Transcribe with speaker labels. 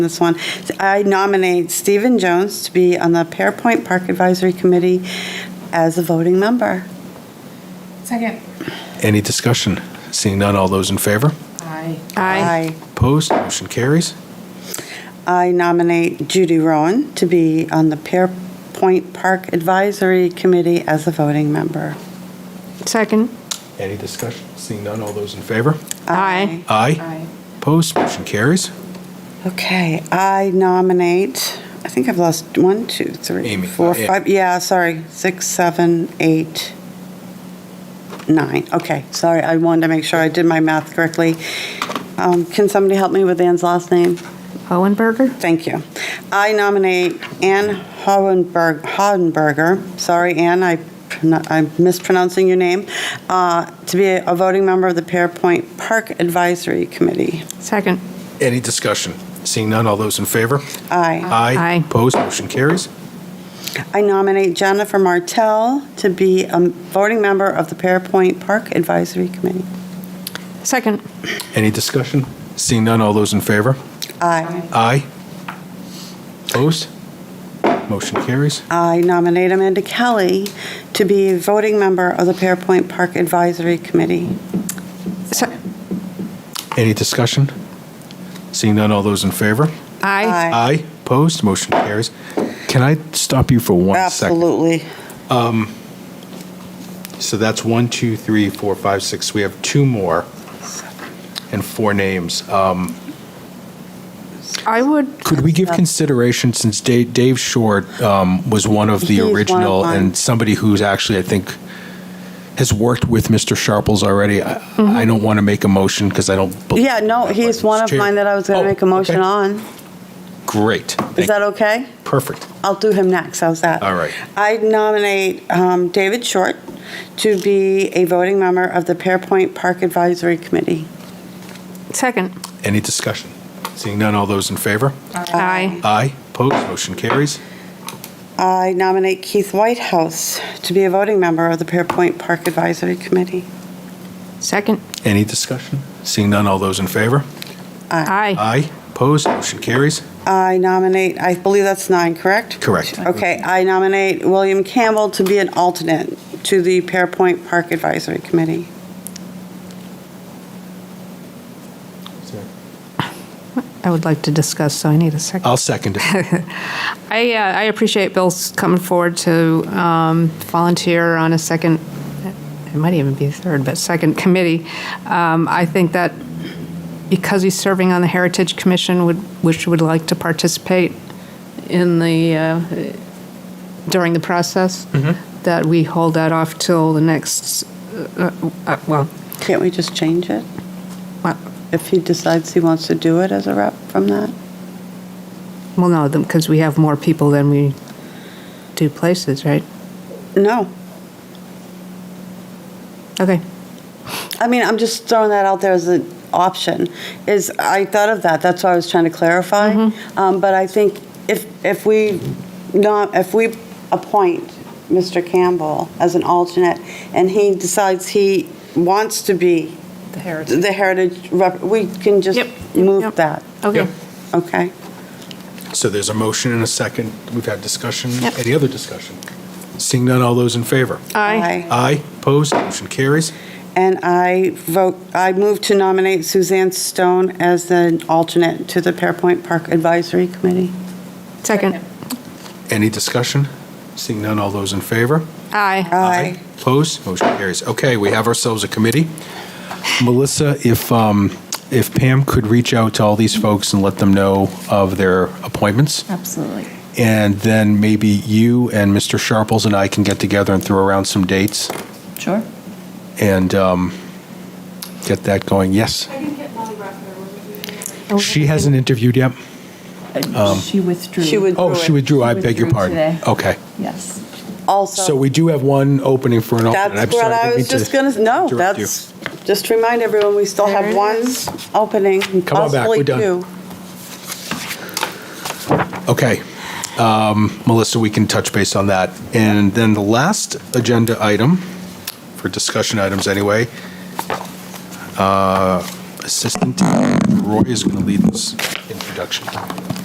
Speaker 1: this one. I nominate Stephen Jones to be on the Pearpoint Park Advisory Committee as a voting member.
Speaker 2: Second.
Speaker 3: Any discussion? Seeing none, all those in favor?
Speaker 2: Aye.
Speaker 1: Aye.
Speaker 3: Opposed? Motion carries.
Speaker 1: I nominate Judy Rowan to be on the Pearpoint Park Advisory Committee as a voting member.
Speaker 4: Second.
Speaker 3: Any discussion? Seeing none, all those in favor?
Speaker 4: Aye.
Speaker 3: Aye.
Speaker 2: Aye.
Speaker 3: Opposed? Motion carries.
Speaker 1: Okay, I nominate, I think I've lost one, two, three,
Speaker 3: Amy,
Speaker 1: four,
Speaker 3: uh, yeah.
Speaker 1: five, yeah, sorry, six, seven, eight, nine. Okay, sorry, I wanted to make sure I did my math correctly. Um, Can somebody help me with Ann's last name?
Speaker 4: Hohenberger?
Speaker 1: Thank you. I nominate Ann Hohenberg, Hohenberger, sorry, Ann, I, prono- I'm mispronouncing your name, uh, to be a voting member of the Pearpoint Park Advisory Committee.
Speaker 4: Second.
Speaker 3: Any discussion? Seeing none, all those in favor?
Speaker 1: Aye.
Speaker 3: Aye.
Speaker 4: Aye.
Speaker 3: Opposed? Motion carries.
Speaker 1: I nominate Jennifer Martell to be a voting member of the Pearpoint Park Advisory Committee.
Speaker 4: Second.
Speaker 3: Any discussion? Seeing none, all those in favor?
Speaker 1: Aye.
Speaker 3: Aye. Opposed? Motion carries.
Speaker 1: I nominate Amanda Kelly to be a voting member of the Pearpoint Park Advisory Committee.
Speaker 4: Se-
Speaker 3: Any discussion? Seeing none, all those in favor?
Speaker 4: Aye.
Speaker 1: Aye.
Speaker 3: Aye. Opposed? Motion carries. Can I stop you for one second?
Speaker 1: Absolutely.
Speaker 3: So that's one, two, three, four, five, six. We have two more and four names. Um,
Speaker 4: I would,
Speaker 3: Could we give consideration, since Da- Dave Short um, was one of
Speaker 1: He
Speaker 3: the
Speaker 1: is one of
Speaker 3: original
Speaker 1: mine.
Speaker 3: and somebody who's actually, I think, has worked with Mr. Sharples already, I
Speaker 1: Mm-hmm.
Speaker 3: I don't want to make a motion because I don't. believe
Speaker 1: Yeah, no,
Speaker 3: that
Speaker 1: he's
Speaker 3: person's
Speaker 1: one of
Speaker 3: Oh. chair.
Speaker 1: mine that I was going
Speaker 3: Oh,
Speaker 1: to make a motion
Speaker 3: okay.
Speaker 1: on.
Speaker 3: Great.
Speaker 1: Is
Speaker 3: Thank-
Speaker 1: that okay?
Speaker 3: Perfect.
Speaker 1: I'll do him next, how's that?
Speaker 3: All right.
Speaker 1: I nominate um, David Short to be a voting member of the Pearpoint Park Advisory Committee.
Speaker 4: second.
Speaker 3: Any discussion? Seeing none, all those in favor?
Speaker 4: Aye.
Speaker 3: Aye. Opposed? Motion carries.
Speaker 1: I nominate Keith Whitehouse to be a voting member of the Pearpoint Park Advisory Committee.
Speaker 4: Second.
Speaker 3: Any discussion? Seeing none, all those in favor?
Speaker 4: Aye.
Speaker 3: Aye. Opposed? Motion carries.
Speaker 1: I nominate, I believe that's nine, correct?
Speaker 3: Correct.
Speaker 1: Okay, I nominate William Campbell to be an alternate to the Pearpoint Park Advisory Committee.
Speaker 4: I would like to discuss, so I need a second.
Speaker 3: I'll second it.
Speaker 4: I, uh, I appreciate Bill's coming forward to um, volunteer on a second, it might even be a third, but second committee. Um, I think that because he's serving on the Heritage Commission, would, which would like to participate in the, uh, during the process, that we hold that off till the next, uh, uh, well,
Speaker 1: Can't we just change it?
Speaker 4: What?
Speaker 1: If he decides he wants to do it as a rep from that?
Speaker 4: well, no, because we have more people than we do places, right?
Speaker 1: No.
Speaker 4: Okay.
Speaker 1: I mean, I'm just throwing that out there as an option, is, I thought of that, that's why I was trying to clarify.
Speaker 4: Mm-hmm.
Speaker 1: Um, But I think if, if we not, if we appoint Mr. Campbell as an alternate, and he decides he wants to be
Speaker 4: The Heritage.
Speaker 1: the heritage rep, we can just
Speaker 4: Yep, yep,
Speaker 1: move
Speaker 4: yep.
Speaker 1: that,
Speaker 4: Okay.
Speaker 1: okay?
Speaker 3: So there's a motion and a second. We've had discussion.
Speaker 4: Yep.
Speaker 3: Any other discussion? Seeing none, all those in favor?
Speaker 4: Aye.
Speaker 3: Aye. Opposed? Motion carries.
Speaker 1: And I vote, I move to nominate Suzanne Stone as an alternate to the Pearpoint Park Advisory Committee.
Speaker 4: Second.
Speaker 3: Any discussion? Seeing none, all those in favor?
Speaker 4: Aye.
Speaker 1: Aye.
Speaker 3: Opposed? Motion carries. Okay, we have ourselves a committee. Melissa, if, um, if Pam could reach out to all these folks and let them know of their appointments,
Speaker 2: Absolutely.
Speaker 3: and then maybe you and Mr. Sharples and I can get together and throw around some dates
Speaker 2: Sure.
Speaker 3: and um, get that going. Yes?
Speaker 5: I didn't get Molly Rocker.
Speaker 1: Oh,
Speaker 3: She hasn't interviewed yet?
Speaker 2: She withdrew.
Speaker 1: She would-
Speaker 3: Oh, she withdrew, I
Speaker 2: She
Speaker 3: beg your
Speaker 2: withdrew
Speaker 3: pardon.
Speaker 2: today.
Speaker 3: Okay,
Speaker 2: Yes.
Speaker 1: Also.
Speaker 3: so we do have one opening for an alternate. I'm
Speaker 1: That's what
Speaker 3: sorry,
Speaker 1: I
Speaker 3: didn't
Speaker 1: was
Speaker 3: mean
Speaker 1: just going to, no,
Speaker 3: interrupt you.
Speaker 1: that's, just to remind everyone, we still
Speaker 4: There
Speaker 1: have
Speaker 4: it
Speaker 1: one
Speaker 4: is.
Speaker 1: opening,
Speaker 3: Come on back,
Speaker 1: possibly
Speaker 3: we're done.
Speaker 1: two.
Speaker 3: Okay. Um, Melissa, we can touch base on that. And then the last agenda item, for discussion items anyway, uh, Assistant Roy is going to lead this introduction.